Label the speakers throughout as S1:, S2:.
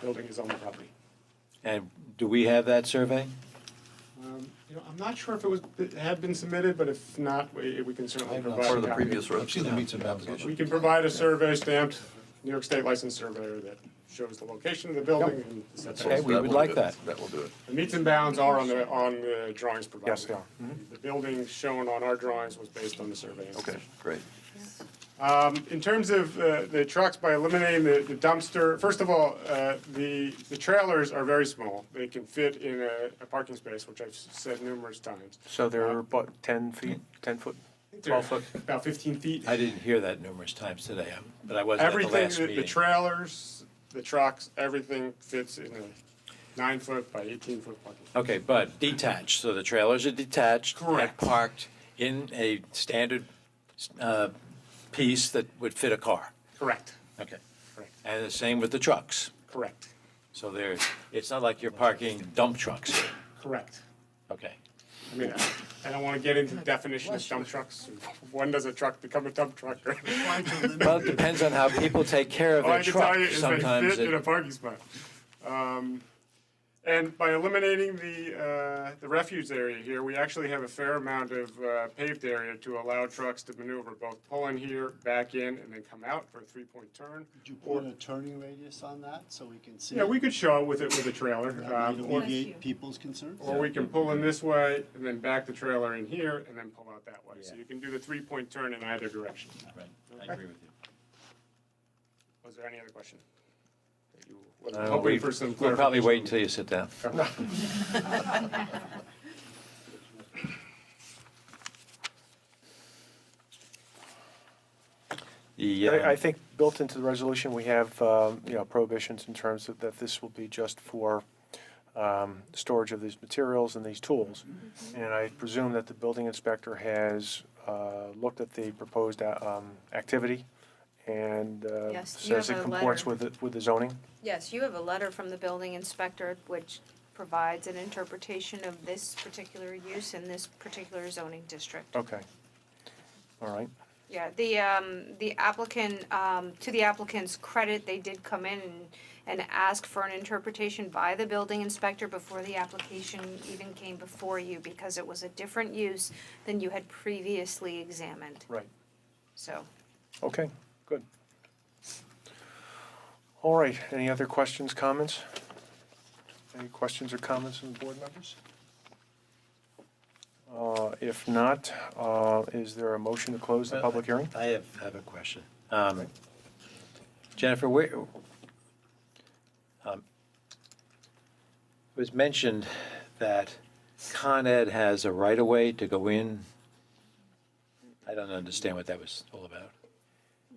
S1: building is on the property.
S2: And do we have that survey?
S1: Um, You know, I'm not sure if it was, it had been submitted, but if not, we we can certainly provide.
S3: Part
S1: a
S3: of the
S1: copy.
S3: previous road.
S4: I've seen the meets and bounds.
S1: We can provide a survey stamped, New York State licensed surveyor that shows the location of the building and the
S2: Okay,
S1: setbacks.
S2: we
S3: That
S2: would
S3: will
S2: like
S3: do it.
S2: that.
S3: That will do it.
S1: The meets and bounds are on the, on the drawings provided.
S5: Yes, they are.
S1: The building shown on our drawings was based on the survey.
S3: Okay, great.
S1: Um, in terms of uh, the trucks, by eliminating the the dumpster, first of all, uh, the, the trailers are very small. They can fit in a, a parking space, which I've s- said numerous times.
S5: So they're about ten feet, ten foot, twelve foot.
S1: About fifteen feet.
S2: I didn't hear that numerous times today, um, but I wasn't at the
S1: Everything,
S2: last
S1: the- the
S2: meeting.
S1: trailers, the trucks, everything fits in a nine foot by eighteen foot parking.
S2: Okay, but detached, so the trailers are detached.
S1: Correct.
S2: And parked in a standard uh, piece that would fit a car.
S1: Correct,
S2: Okay.
S1: correct,
S2: And the same with the trucks.
S1: correct,
S2: So there, it's not like you're parking dump trucks.
S1: correct.
S2: Okay.
S1: I mean, I- I don't want to get into the definition of dump trucks. When does a truck become a dump truck? All
S2: Well, it depends on how people take care of
S1: Oh, I can
S2: their
S1: tell you
S2: truck.
S1: is they
S2: Sometimes
S1: fit in a
S2: it,
S1: parking spot. Um, And by eliminating the, uh, the refuge area here, we actually have a fair amount of uh, paved area to allow trucks to maneuver, both pull in here, back in, and then come out for a three-point turn.
S6: Could you put a turning radius on that so we can see?
S1: Yeah, we could show it with it with a trailer.
S6: That
S1: um,
S6: might
S1: or-
S6: alleviate people's concerns.
S1: Or we can pull in this way and then back the trailer in here and then pull out that way. So you can do the three-point turn in either direction.
S2: Right, I agree with you.
S1: Was there any other question? that you were
S2: Uh,
S1: Hoping
S2: we-
S1: for some
S2: We'll
S1: clarification.
S2: probably wait until you sit down. The,
S5: I I
S2: um,
S5: think built into the resolution, we have, um, you know, prohibitions in terms of that this will be just for um, storage of these materials and these tools.
S7: Mm-hmm.
S5: And I presume that the building inspector has uh, looked at the proposed uh, um, activity and uh,
S7: Yes, you
S5: says
S7: have
S5: it
S7: a
S5: comports
S7: letter.
S5: with, the- with the zoning.
S7: Yes, you have a letter from the building inspector which provides an interpretation of this particular use in this particular zoning district.
S5: Okay. All right.
S7: Yeah, the, um, the applicant, um, to the applicant's credit, they did come in and, and ask for an interpretation by the building inspector before the application even came before you, because it was a different use than you had previously examined,
S5: Right.
S7: so.
S5: Okay, good. All right, any other questions, comments? Any questions or comments from the board members? Uh, If not, uh, is there a motion to close the public hearing?
S2: I have, have a question. Um, Jennifer, where, um, it was mentioned that Con Ed has a right-of-way to go in. I don't understand what that was all about.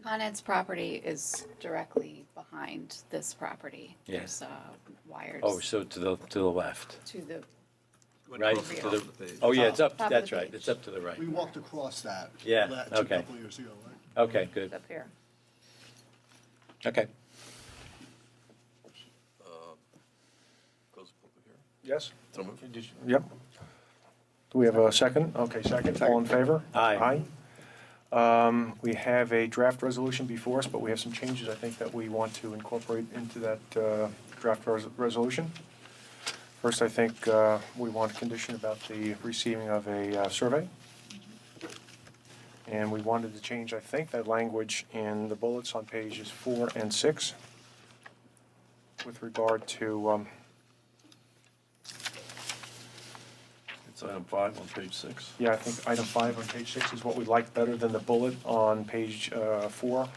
S8: Con Ed's property is directly behind this property.
S2: Yeah.
S8: There's uh,
S2: Oh,
S8: wires
S2: so to the, to the left,
S8: to the,
S2: right?
S8: over
S2: To
S8: here.
S2: the- Oh, yeah, it's up,
S8: Top of
S2: that's
S8: the
S2: right,
S8: page.
S2: it's up to the right.
S6: We walked across that.
S2: Yeah,
S6: la- Two
S2: okay.
S6: couple years ago, right?
S2: Okay, good,
S7: Up here.
S2: okay.
S3: Close the public hearing.
S5: Yes?
S3: So moved.
S5: Yep. Do we have a second? Okay, second, all in favor?
S2: Aye.
S5: Aye. Um, We have a draft resolution before us, but we have some changes, I think, that we want to incorporate into that uh, draft res- resolution. First, I think uh, we want a condition about the receiving of a uh, survey. And we wanted to change, I think, that language in the bullets on pages four and six with regard to, um,
S3: It's item five on page six.
S5: Yeah, I think item five on page six is what we like better than the bullet on page uh, four,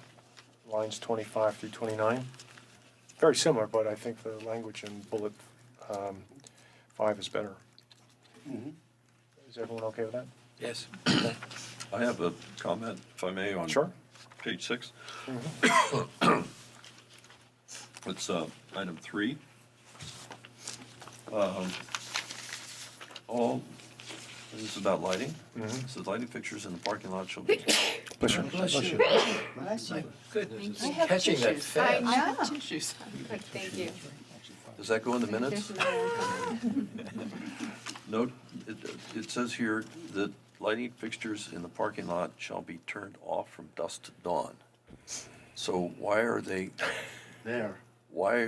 S5: lines 25 through 29. Very similar, but I think the language in bullet um, five is better. Is everyone okay with that?
S2: Yes.
S3: I have a comment, if I may, on.
S5: Sure.
S3: Page six. Mm-hmm. It's uh, item three. Um, All, this is about lighting. It says lighting fixtures in the parking lot shall be
S2: Bless you. Goodness, it's catching that
S8: I
S2: fast.
S8: know.
S7: Good, thank you.
S3: Does that go in the minutes?
S7: There's another one coming.
S3: No, it, it says here that lighting fixtures in the parking lot shall be turned off from dusk to dawn. So why are they,
S6: There.
S3: why